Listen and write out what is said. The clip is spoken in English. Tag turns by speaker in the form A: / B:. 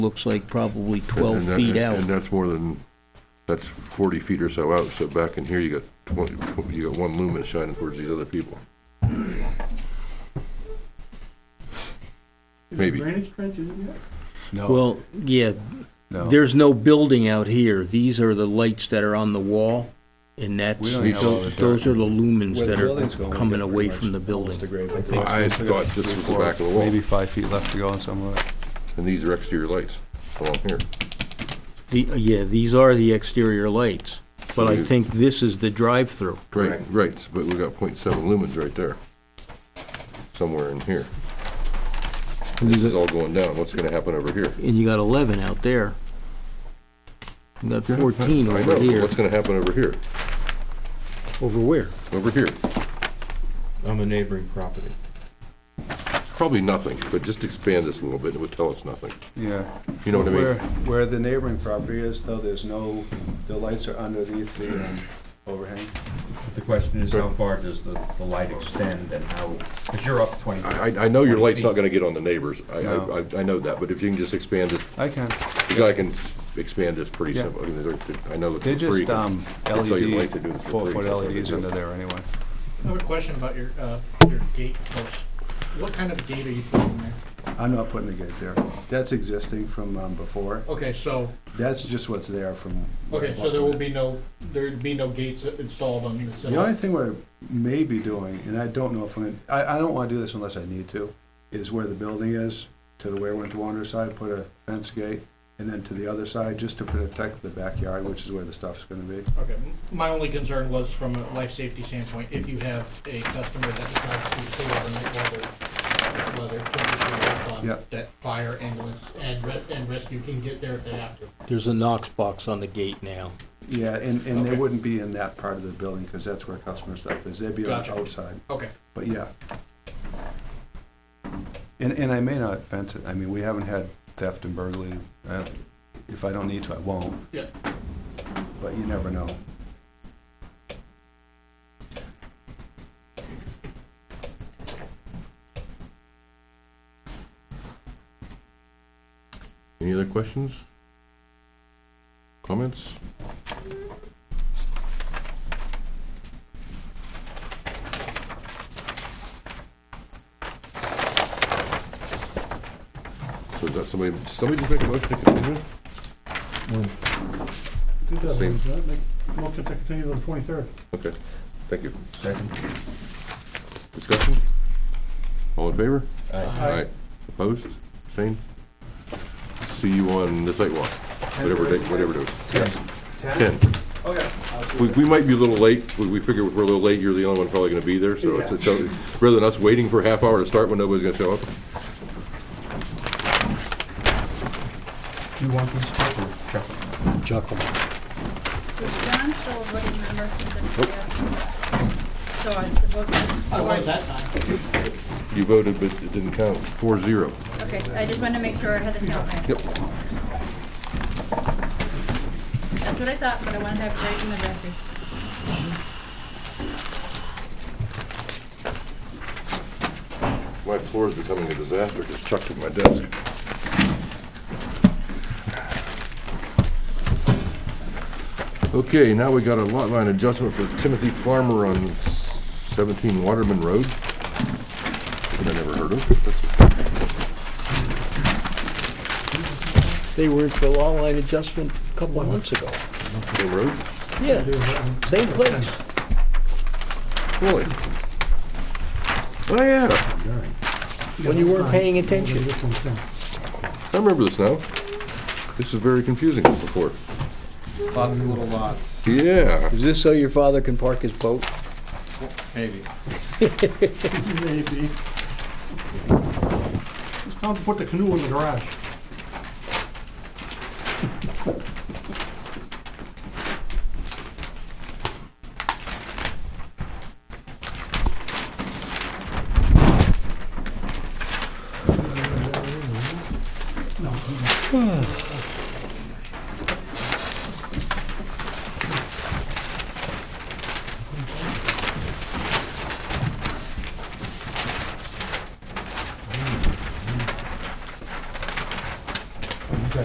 A: looks like probably
B: And
A: 12
B: that-
A: feet
B: and-
A: out.
B: And that's more than, that's 40 feet or so out, so back in here, you got 20, you got one lumen shining towards these other people. Maybe.
C: Drainage trench, is it yet?
D: No,
A: Well, yeah,
D: no.
A: there's no building out here. These are the lights that are on the wall, and that's,
D: We don't have all the
A: those those are the lumens
E: Where the
A: that
E: building's going,
A: are
E: we
A: coming
E: get
A: away
E: pretty
A: from the
E: much almost
A: building.
E: a grade.
B: I thought this was the
D: Four,
B: back of the wall,
D: Maybe five feet left to go on some of it.
B: and these are exterior lights along here.
A: The- Yeah, these are the exterior lights, but I
B: you-
A: think this is the drive-through.
B: Right, right, but we got 0.7 lumens right there, somewhere in here. And this is all going down, what's gonna happen over here?
A: And you got 11 out there. You got 14
B: I
A: over
B: know, but
A: here.
B: What's gonna happen over here,
A: Over where?
B: over here?
C: On the neighboring property.
B: Probably nothing, but just expand this a little bit, it would tell us nothing.
D: Yeah.
B: You know what I
E: Where,
B: mean?
E: where the neighboring property is, though, there's no, the lights are underneath the um, overhang.
F: The question is, how far does the, the light extend and how, because you're up twenty.
B: I, I- I know your light's not gonna get on the neighbors, I, I,
D: No.
B: I- I know that, but if you can just expand this,
D: I can.
B: the guy can expand this pretty
D: Yeah.
B: simple, I mean, they're- I know it's
D: They're
B: for free.
D: just um,
B: That's how you'd like to do
D: LED,
B: this for free,
D: four-foot
B: that's what they
D: LEDs
B: do.
D: E under there anyway.
G: I have a question about your, uh, your gate post. What kind of gate are you putting there?
E: I'm not putting a gate there. That's existing from um, before.
G: Okay, so,
E: That's just what's there from. where I
G: okay, so
E: walked
G: there
E: in.
G: will be no, there'd be no gates installed on this.
E: The only thing we're maybe doing, and I don't know if I'm, I, I don't wanna do this unless I need to, is where the building is, to the Ware Winter Wander side, put a fence gate, and then to the other side, just to protect the backyard, which is where the stuff's gonna be.
G: Okay, m- my only concern was from a life safety standpoint, if you have a customer that decides to stay overnight while they're, while they're trying to
E: Yeah.
G: that fire ambulance and re- and rescue can get there if they have to.
A: There's a Knox box on the gate now.
E: Yeah, and, and they
G: Okay.
E: wouldn't be in that part of the building, cause that's where customer stuff is, they'd be on the
G: Gotcha.
E: outside,
G: Okay,
E: but yeah. And, and I may not fence it, I mean, we haven't had theft and burglary, uh, if I don't need to, I won't.
G: Yeah.
E: But you never know.
B: Any other questions? Comments? So does somebody, somebody just make a motion to continue?
C: Did that,
B: Same.
C: was that, like, motion to continue to the twenty-third.
B: Okay, thank you.
F: Second.
B: Discussion? All in favor?
F: Aye.
B: Aye. Opposed? Same? See you on the site walk, whatever day, whatever it is. Ten.
E: Okay. I'll see you
B: We, we might be a little late, we, we figure if we're a little late, you're the only one probably gonna be there, so it's, it's, rather than us waiting for a half hour to start when nobody's gonna show up.
F: Do you want these checked or check them?
A: Chuckle.
H: Was John still a voting member?
B: Nope.
H: So I, the vote
G: I was that time.
B: You voted, but it didn't count, four zero.
H: okay, I just wanted to make sure I had the count right.
B: Yep.
H: That's what I thought, but I wanted to have it right in the record.
B: My floor is becoming a disaster, just chucked at my desk. Okay, now we got a lot line adjustment for Timothy Farmer on seventeen Waterman Road. That I never heard of. That's-
A: They were in for law line adjustment a couple of months ago.
B: Same road?
A: Yeah, same place.
B: Really? Oh, yeah,
A: When you weren't paying attention.
B: I remember this now. This is very confusing as before.
E: Lots of little lots.
B: Yeah.
A: Is this so your father can park his boat?
F: Maybe.
C: Maybe. It's time to put the canoe in the garage.